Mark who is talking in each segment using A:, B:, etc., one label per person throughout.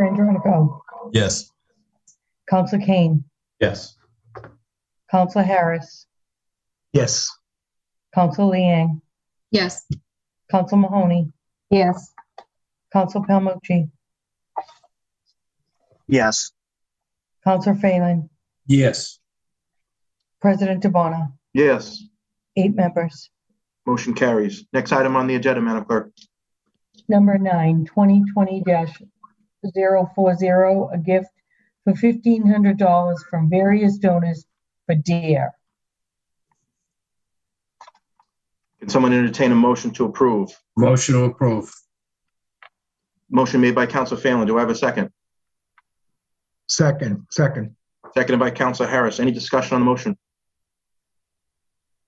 A: Manager Hunico.
B: Yes.
A: Council Kane.
B: Yes.
A: Council Harris.
B: Yes.
A: Council Liang.
C: Yes.
A: Council Mahoney.
C: Yes.
A: Council Palmucci.
D: Yes.
A: Council Phelan.
B: Yes.
A: President Dubana.
D: Yes.
A: Eight members.
D: Motion carries. Next item on the agenda, Madam Clerk.
A: Number nine, 2020-040, a gift for $1,500 from various donors for DARE.
D: Can someone entertain a motion to approve?
E: Motion to approve.
D: Motion made by Counsel Phelan. Do I have a second?
E: Second, second.
D: Seconded by Counsel Harris. Any discussion on the motion?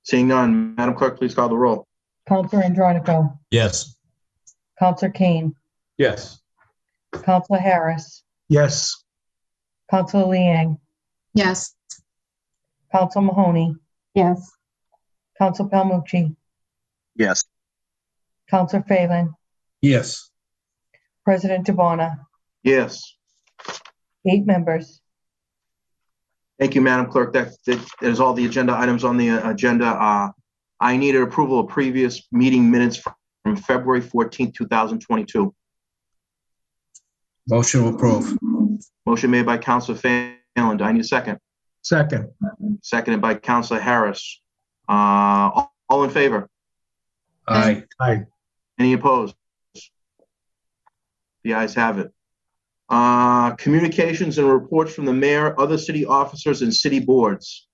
D: Seeing none, Madam Clerk, please call the roll.
A: Counselor Andronico,
B: Yes.
A: Counselor Kane,
B: Yes.
A: Counselor Harris,
E: Yes.
A: Counselor Liang,
C: Yes.
A: Counsel Mahoney,
C: Yes.
A: Counsel Palmucci,
D: Yes.
A: Counselor Phelan,
E: Yes.
A: President Dubana,
D: Yes.
A: eight members.
D: Thank you, Madam Clerk. That, that that is all the agenda items on the uh, agenda. Uh, I need an approval of previous meeting minutes from February 14th, 2022.
E: Motion to approve.
D: Motion made by Counsel Phelan. Do I need a second?
E: Second.
D: Seconded by Counsel Harris. Uh, all- all in favor?
E: Aye. Aye.
D: Any opposed? The ayes have it. Uh, Communications and reports from the mayor, other city officers, and city boards.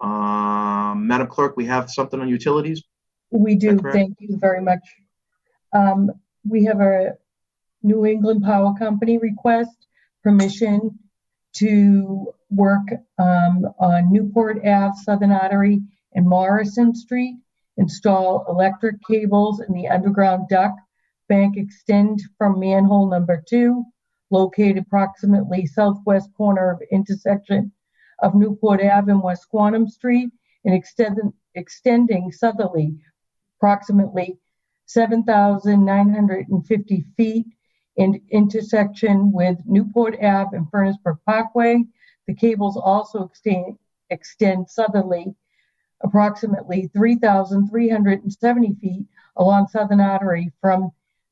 D: Um, Madam Clerk, we have something on utilities?
A: We do,
D: correct?
A: thank you very much. Um, we have a New England Power Company request permission to work, um, on Newport Ave, Southern Artery, and Morrison Street, install electric cables in the underground duct bank extend from manhole number two, located approximately southwest corner of intersection of Newport Ave and West Quantum Street, and extend, extending southerly approximately 7,950 feet in intersection with Newport Ave and Furnace Brook Parkway. The cables also extend, extend southerly approximately 3,370 feet along Southern Artery from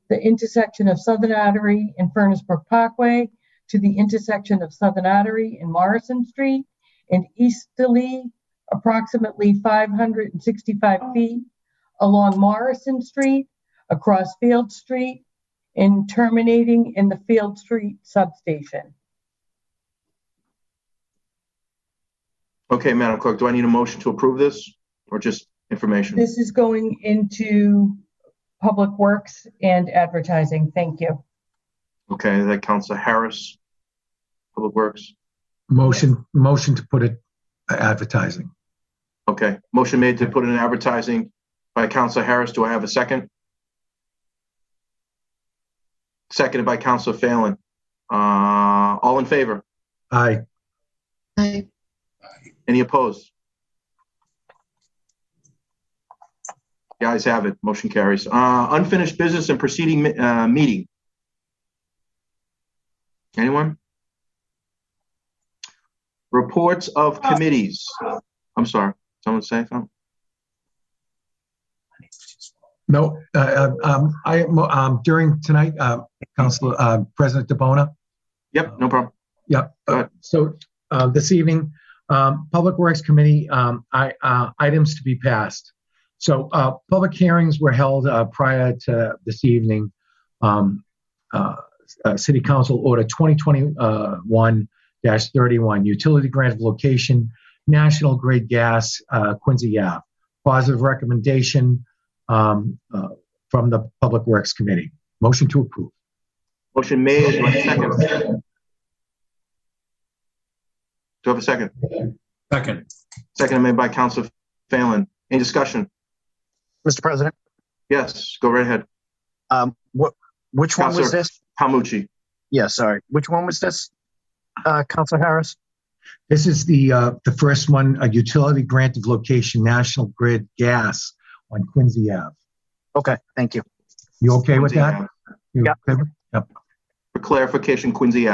A: the intersection of Southern Artery and Furnace Brook Parkway to the intersection of Southern Artery and Morrison Street and easterly approximately 565 feet along Morrison Street, across Field Street, and terminating in the Field Street substation.
D: Okay, Madam Clerk, do I need a motion to approve this or just information?
A: This is going into Public Works and Advertising. Thank you.
D: Okay, that Council Harris, Public Works.
F: Motion, motion to put it uh, advertising.
D: Okay, motion made to put in advertising by Council Harris. Do I have a second? Seconded by Council Phelan. Uh, all in favor?
F: Aye,
C: Aye.
D: Any opposed? The ayes have it, motion carries. Uh, Unfinished business and proceeding mi- uh, meeting. Anyone? Reports of committees. I'm sorry, someone say something?
F: no, uh, um, I, um, during tonight, uh, Council, uh, President DeBona,
D: Yep, no problem.
F: Uh, So uh, this evening, um, Public Works Committee, um, I- uh, items to be passed. So uh, public hearings were held uh, prior to this evening. Um, uh, uh, City Council Order 2021-31, Utility Grant of Location, National Grid Gas, uh, Quincy Ave. Positive recommendation um, uh, from the Public Works Committee. Motion to approve.
D: Motion made, do I have a second? Do I have a second?
E: Second.
D: Second made by Council Phelan. Any discussion?
G: Mr. President,
D: Yes, go right ahead.
G: um, what, which one was
D: Counselor.
G: this?
D: Palmucci.
G: Yeah, sorry. Which one was this? Uh, Counselor Harris?
F: This is the, uh, the first one, a utility grant of location, National Grid Gas on Quincy Ave.
G: Okay, thank you.
F: You okay with that? You
G: Yeah.
F: okay with-
D: For clarification, Quincy